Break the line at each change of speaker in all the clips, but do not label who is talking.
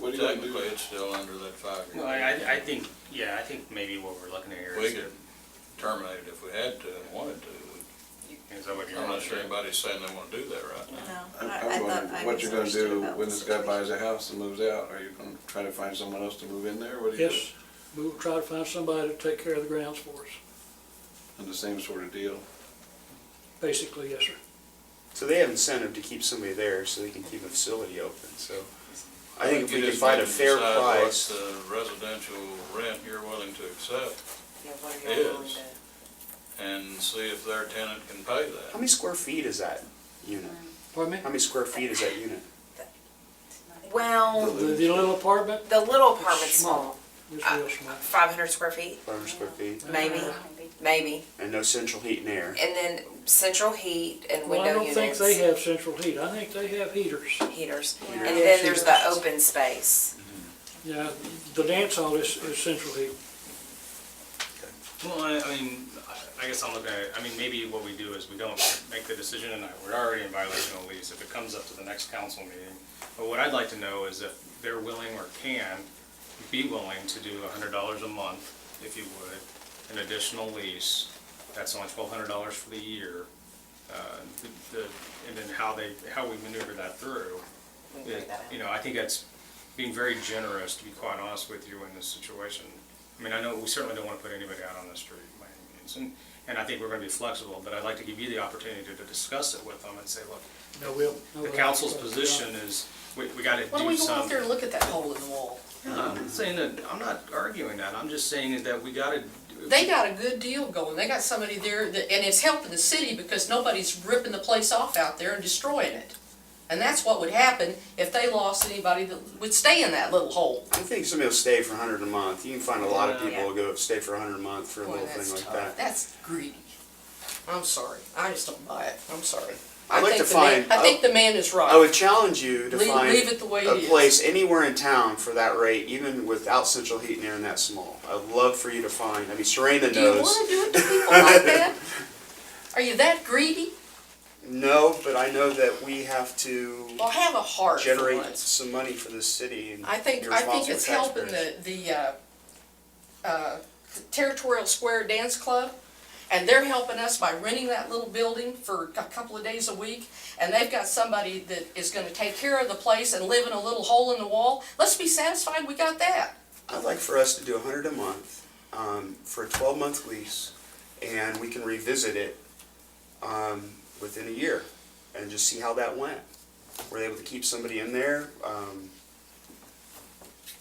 What do you think?
Technically, it's still under that
Well,
five-year.
I, I think, yeah, I think maybe what we're looking at here
We
is,
could terminate it if we had to and wanted to.
is that what you're?
I'm not
wanting to
sure
do?
anybody's saying they want to do that right
No,
now.
I,
I'm
I
I'm
thought I
wondering, what you're gonna
misunderstood
do
about
when
the
this guy buys
situation.
a house and moves out? Are you gonna try to find someone else to move in there? What do you do?
Yes, we will try to find somebody to take care of the grounds for us,
And the same sort of deal?
basically, yes, sir.
So they have incentive to keep somebody there, so they can keep a facility open, so I think if
you
we can
just
find a
need to
fair
decide what
price,
The residential rent you're willing to accept
Yeah, what are y'all willing
is-
to-
and see if their tenant can pay
how
that.
many square feet is that unit?
Pardon me?
How many square feet is that unit?
Well,
The, the little apartment,
the little apartment's
small.
small,
it's real small.
five hundred square feet,
Five hundred square feet,
maybe, maybe.
and no central heat and air.
And then central heat and
Well, I
window
don't think
units,
they have central heat, I think they have heaters.
heaters.
Yeah.
And then there's the
Heaters.
open space.
Yeah, the dance hall is, is central heat.
Well, I, I mean, I- I guess I'm looking at, it- I mean, maybe what we do is we don't make the decision tonight. We're already in violation of the lease if it comes up to the next council meeting. But what I'd like to know is if they're willing or can be willing to do a hundred dollars a month, if you would, an additional lease. That's only twelve hundred dollars for the year. Uh, the, the- and then how they, how we maneuver that through.
We can figure that out.
You know, I think that's being very generous, to be quite honest with you, in this situation. I mean, I know, we certainly don't want to put anybody out on the street by any means, and, and I think we're going to be flexible, but I'd like to give you the opportunity to discuss it with them and say, look,
No, we'll.
the council's position is, we, we got to do
Why
something.
don't we go out there and look at that hole in the wall?
No, I'm not saying that, I'm not arguing that, I'm just saying that we got to.
They got a good deal going. They got somebody there that, and it's helping the city because nobody's ripping the place off out there and destroying it. And that's what would happen if they lost anybody that would stay in that little hole.
I think somebody will stay for a hundred a month, you can find a lot of
Yeah.
people who go stay for a hundred a month for a
Boy,
little
that's
thing like
tough.
that.
That's greedy. I'm sorry. I just don't buy it. I'm sorry.
I'd
I
like
think
to
the man-
find-
I think the man is right.
I would challenge you to
Leave- leave
find
it the way
a
it is.
place anywhere in town for that rate, even without central heat and air and that small. I'd love for you to find, I mean, Serena knows.
Do you wanna do it to people like that? Are you that greedy?
No, but I know that we have to
Well, have a heart for
generate
once.
some money for this city and.
I think,
be
I think
responsible
it's helping
taxpayers.
the, the, uh, uh, Territorial Square Dance Club, and they're helping us by renting that little building for a couple of days a week, and they've got somebody that is gonna take care of the place and live in a little hole in the wall. Let's be satisfied we got that.
I'd like for us to do a hundred a month, um, for a twelve-month lease, and we can revisit it, um, within a year, and just see how that went. Were they able to keep somebody in there? Um,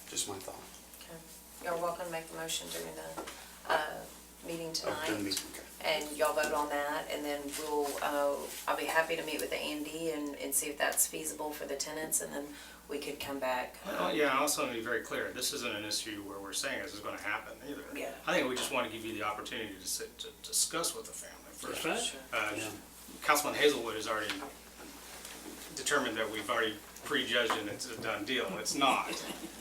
just my thought.
You're welcome to make the motion during the, uh, meeting
Oh, didn't mean-
tonight.
okay.
And y'all vote on that and then we'll, uh, I'll be happy to meet with Andy and, and see if that's feasible for the tenants and then we could come back.
Well, yeah, I also want to be very clear, this isn't an issue where we're saying this is going to happen either.
Yeah.
I think we just want to give you the opportunity to sit, to discuss with the family first.
That's right.
Uh,
Yeah.
Councilman Hazelwood has already determined that we've already prejudged and it's a done deal. It's not.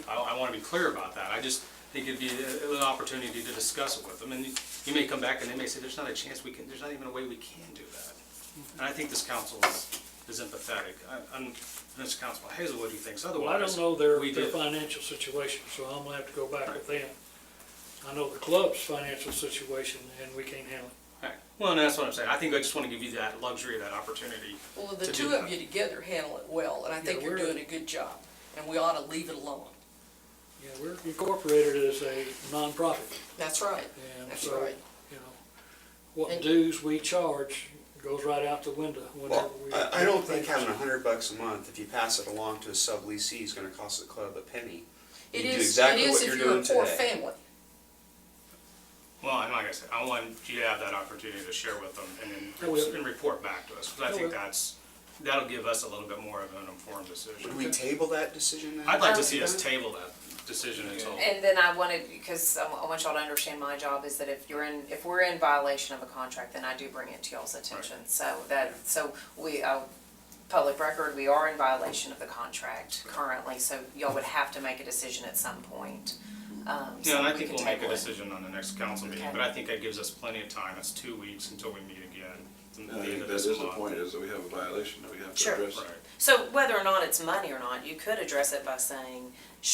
I, I want to be clear about that. I just think it'd be a- an opportunity to discuss it with them. And you may come back and they may say, there's not a chance we can, there's not even a way we can do that. And I think this council is, is empathetic. I- I'm, this Councilman Hazelwood who thinks
Well, I
otherwise.
don't know their,
We
their
did.
financial situation, so I'm gonna have to go back with them. I know the club's financial situation, and we can't handle it.
Right. Well, and that's what I'm saying. I think I just want to give you that luxury, that opportunity.
Well, the
To do
two of
that.
you together handle it well, and I think
Yeah,
you're
we're-
doing a good job, and we ought to leave it alone.
Yeah, we're incorporated as a nonprofit,
That's right.
and
That's
so,
right.
you know, what
And-
dues we charge goes right out the window whenever
Well,
we.
I, I don't think having a hundred bucks a month, if you pass it along to a subleasee, is gonna cost the club a penny.
It
You do
is, it
exactly
is
what
if
you're
you're a
doing
poor
today.
family.
Well, and like I said, I want you to have that opportunity to share with them and
I will.
then and report back to us. Because
I
I
will.
think that's, that'll give us a little bit more of an informed
Would
decision.
we table that decision then?
I'd like
Um,
to see
uh,
us table that decision until,
And then I wanted, because I wa- I want y'all to understand my job is that if you're in, if we're in violation of a contract, then I do bring it to y'all's attention. So that, so we, uh, public record, we are in violation of the contract currently, so y'all would have to make a decision at some point. Um, so
yeah, and I
we
think
could
we'll make a
table it.
decision on the next council meeting.
Okay.
But I think that gives us plenty of time. It's two weeks until we meet again.
I think that is the point, is that we have a violation that we have to
Sure.
address.
Right.
So whether or not it's money or not, you could address it by saying,